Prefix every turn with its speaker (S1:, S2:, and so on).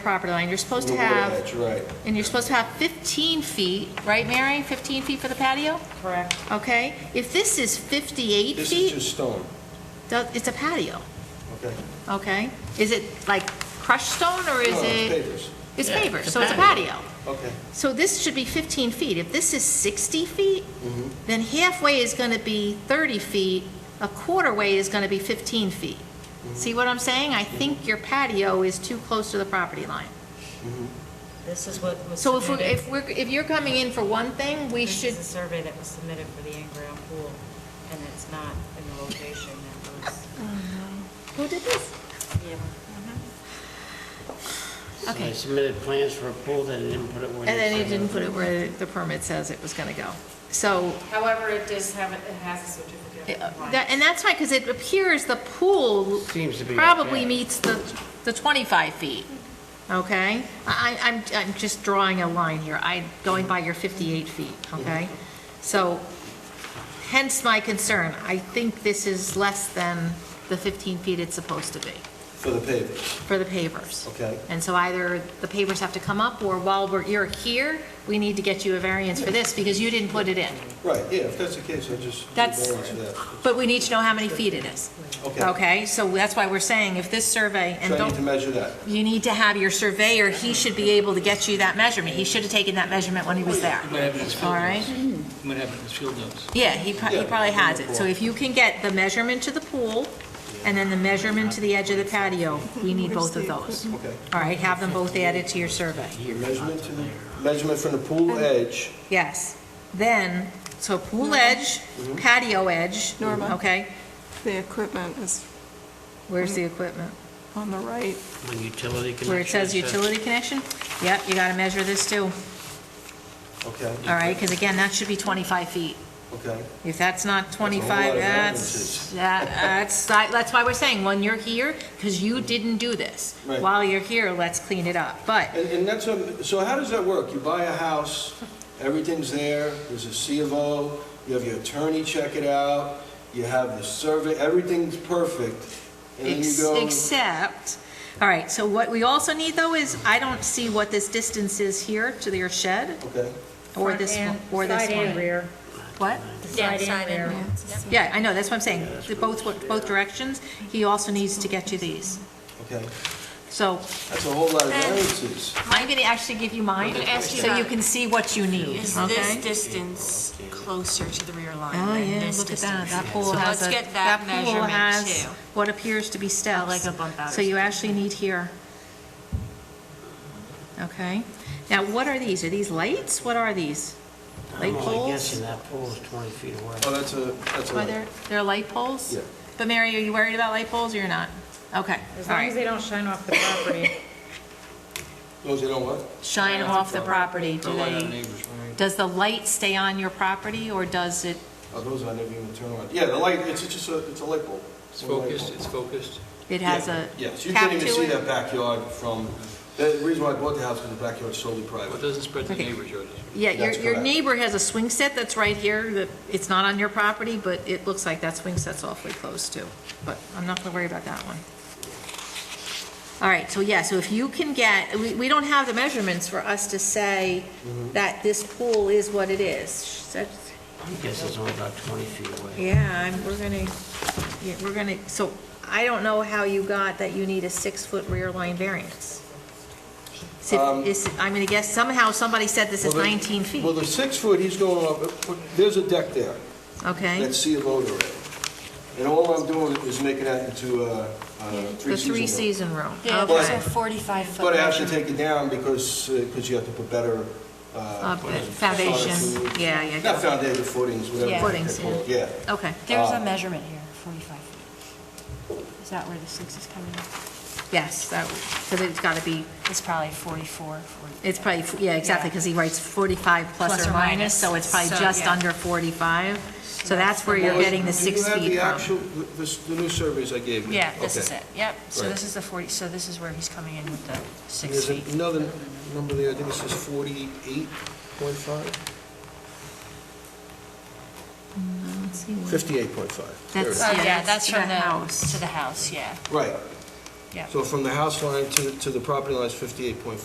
S1: property line, you're supposed to
S2: Little bit of
S1: have,
S2: edge, right.
S1: and you're supposed to have 15 feet, right, Mary? 15 feet for the patio,
S3: Correct.
S1: okay? If this is 58
S2: This is
S1: feet,
S2: just stone,
S1: tho- it's a patio,
S2: okay?
S1: okay? Is it like crushed stone, or is
S2: No, it's
S1: it?
S2: papers,
S1: It's
S4: Yeah,
S1: paper,
S4: it's a
S1: so it's a
S4: patio.
S1: patio.
S2: okay.
S1: So this should be 15 feet. If this is 60 feet,
S2: Mm-hmm.
S1: then halfway is going to be 30 feet, a quarter way is going to be 15 feet.
S2: Mm-hmm.
S1: See what I'm saying? I think your patio is too close to the property line.
S3: This is what was
S1: So if we're,
S3: submitted.
S1: if we're, if you're coming in for one thing, we
S3: This
S1: should,
S3: is a survey that was submitted for the in-ground pool, and it's not in the location that was.
S1: who did this?
S4: So
S1: Okay.
S4: They submitted plans for a pool, they didn't put it where.
S1: And
S4: they
S1: then he
S4: said
S1: didn't put it where the permit says it was gonna go. So,
S3: However, it does have, it has a certificate of
S1: uh,
S3: compliance.
S1: that- and that's fine, because it appears the pool
S4: Seems to be
S1: probably
S4: okay.
S1: meets the, the 25 feet, okay? I, I- I'm, I'm just drawing a line here, I, going by your 58 feet, okay? So hence my concern, I think this is less than the 15 feet it's supposed to be
S2: For the pavers,
S1: for the pavers.
S2: okay?
S1: And so either the pavers have to come up, or while we're, you're here, we need to get you a variance for this, because you didn't put it in.
S2: Right, yeah, if that's the case, I just. need
S1: That's,
S2: variance for that.
S1: but we need to know how many feet it is,
S2: Okay.
S1: okay? So that's why we're saying, if this survey, and
S2: So I need to
S1: don't,
S2: measure that.
S1: you need to have your surveyor, he should be able to get you that measurement. He should have taken that measurement when he was there.
S5: What happened is
S1: All
S5: field
S1: right?
S5: notes. What happened is field notes.
S1: Yeah, he pro- he
S2: Yeah,
S1: probably has it. So
S2: wonderful.
S1: if you can get the measurement to the pool, and then the measurement to the edge of the patio, we need both of those.
S2: Okay.
S1: All right, have them both added to your survey.
S2: The measurement to the, measurement from the pool edge,
S1: Yes. Then, so pool edge,
S2: Mm-hmm.
S1: patio edge.
S6: Norma.
S1: Okay,
S6: The equipment is
S1: where's
S2: Mm-hmm.
S1: the equipment?
S6: on the right.
S4: When utility connection.
S1: Where it says
S4: is set.
S1: utility connection? Yep, you gotta measure this too,
S2: okay,
S1: all right? Because again, that should be 25 feet.
S2: okay?
S1: If that's not
S2: lot
S1: 25,
S2: of
S1: that's,
S2: variances.
S1: that- that's, that's why we're saying, when you're here, because you didn't do this.
S2: Mm-hmm. Right.
S1: While you're here, let's clean it up. But
S2: And, and that's, what- so how does that work? You buy a house, everything's there, there's a C of O, you have your attorney check it out, you have the survey, everything's perfect, and then you
S1: ex-
S2: go.
S1: except, all right, so what we also need though is, I don't see what this distance is here to your shed,
S2: Okay,
S1: or this, one- or this
S7: Side and
S1: one.
S7: rear.
S1: What?
S7: Side and rear.
S1: Yeah, I know, that's what I'm saying, The both, both directions. He also needs to get you these.
S2: okay,
S1: So
S2: that's a whole lot of variances.
S1: I'm going to actually give you mine,
S3: ask you
S1: so you
S3: about-
S1: can see what you need,
S3: Is this
S1: okay?
S3: distance closer to the rear line
S1: Oh,
S3: than
S1: yeah,
S3: this
S1: look at
S3: distance?
S1: that, that pool
S3: So
S1: has a,
S3: let's get
S1: that
S3: that
S1: pool
S3: measurement
S1: has
S3: too.
S1: what appears to be steps.
S3: like a bump out or
S1: So you
S3: something.
S1: actually need here. Okay, now what are these? Are these lights? What are these? Light
S4: I'm only
S1: poles?
S4: guessing that pool is 20 feet away.
S2: Oh, that's a, that's a.
S1: Are there, they're light poles?
S2: Yeah.
S1: But Mary, are you worried about light poles or you're not? Okay,
S7: As
S1: all
S7: long as
S1: right.
S7: they don't shine off the property.
S2: Those you don't want?
S1: Shine off the property, do
S5: Don't lie on
S1: they,
S5: neighbors, right?
S1: does the light stay on your property or does it,
S2: Oh, those I never even turn on. Yeah, the light, it's just a, it's a light bulb.
S5: It's focused, it's focused.
S1: it has a
S2: Yes, you
S1: cap
S2: can't even
S1: to
S2: see
S1: it?
S2: that backyard from, the reason why I bought the house, because the backyard's solely
S5: But it
S2: private.
S5: doesn't spread to
S1: Okay.
S5: neighbors, yours does.
S1: Yeah, your,
S2: That's
S1: your
S2: correct.
S1: neighbor has a swing set that's right here, that, it's not on your property, but it looks like that swing set's awfully close too. But I'm not gonna worry about that one. All right, so yeah, so if you can get, we, we don't have the measurements for us to say
S2: Mm-hmm.
S1: that this pool is what it is. That's-
S4: I guess it's only about 20 feet away.
S1: Yeah, I'm, we're gonna, yeah, we're gonna, so I don't know how you got that you need a six-foot rear line variance. Is it-
S2: Um,
S1: is it- I'm gonna guess somehow somebody said this is
S2: Well, the-
S1: 19 feet,
S2: Well, the six foot, he's going up, uh, there's a deck there.
S1: okay?
S2: that sea of odor. And all I'm doing is making that into a
S1: The
S2: three-season.
S1: three-season room,
S3: Yeah,
S2: but-
S3: there's
S1: okay.
S3: a 45-foot.
S2: But I have to take it down because, because you have to put better,
S1: Uh,
S2: uh,
S1: Foundation,
S2: solid-
S1: yeah, yeah,
S2: not
S1: yeah,
S2: foundation, footings, whatever.
S3: Yeah.
S1: Footings, yeah.
S2: Yeah.
S1: okay,
S3: There's
S2: uh,
S3: a measurement here, 45 feet. Is that where the six is coming in?
S1: yes, that, because it's got to be,
S3: It's probably 44, 45.
S1: it's probably, yeah, exactly, because he writes 45 plus
S3: Plus
S1: or
S3: or
S1: minus,
S3: minus,
S1: so it's probably
S3: so,
S1: just
S3: yeah.
S1: under 45, so that's
S3: that's
S1: where
S3: the
S1: you're
S3: most-
S1: getting the six
S2: Do
S1: feet
S2: you have the
S1: from.
S2: actual, the- the the new surveys I gave you?
S3: Yeah, this
S2: Okay.
S3: is it, yep. So
S2: Right.
S3: this is the 40, so this is where he's coming in with the six
S2: There's
S3: feet.
S2: another number there, I think it says 48.5? 58.5. There it
S1: That's-
S2: is.
S3: Oh,
S1: Yeah,
S3: yeah,
S1: that's
S3: that's
S1: to the
S3: Oh, from the,
S1: house.
S3: to the house, yeah.
S2: Right.
S1: Yeah.
S2: So from the house line to, to the property line is 58.4.